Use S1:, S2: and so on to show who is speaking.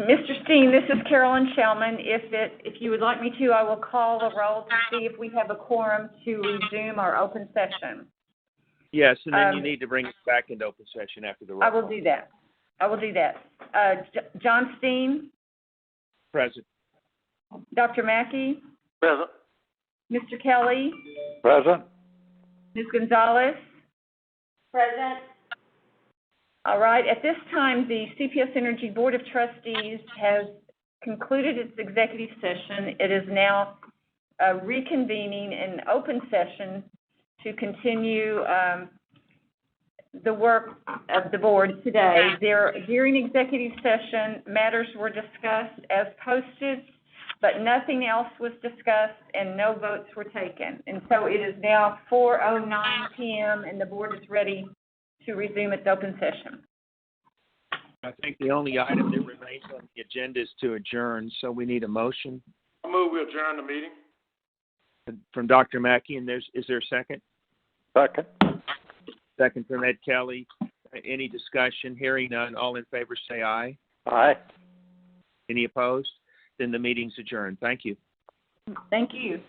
S1: Mr. Steen, this is Carolyn Shellman. If it, if you would like me to, I will call the roll to see if we have a quorum to resume our open session.
S2: Yes, and then you
S1: Um,
S2: need to bring it back into open session after the roll
S1: I
S2: call.
S1: will do that. I will do that. Uh, J- John Steen,
S2: Present.
S1: Dr. Mackey,
S3: Present.
S1: Mr. Kelly,
S3: Present.
S1: Ms. Gonzalez.
S4: Present.
S1: All right, at this time, the CPS Energy Board of Trustees has concluded its executive session. It is now uh, reconvening an open session to continue um, the work of the board today. There, during executive session, matters were discussed as posted, but nothing else was discussed and no votes were taken. And so it is now 4:09 PM and the board is ready to resume its open session.
S2: I think the only item that remains on the agenda is to adjourn, so we need a motion
S3: I move we adjourn the meeting.
S2: from Dr. Mackey, and there's, is there a second?
S3: Second.
S2: Second from Ed Kelly. Any discussion? Hearing none. All in favor, say aye.
S3: Aye.
S2: Any opposed? Then the meeting's adjourned. Thank you.
S1: Thank you.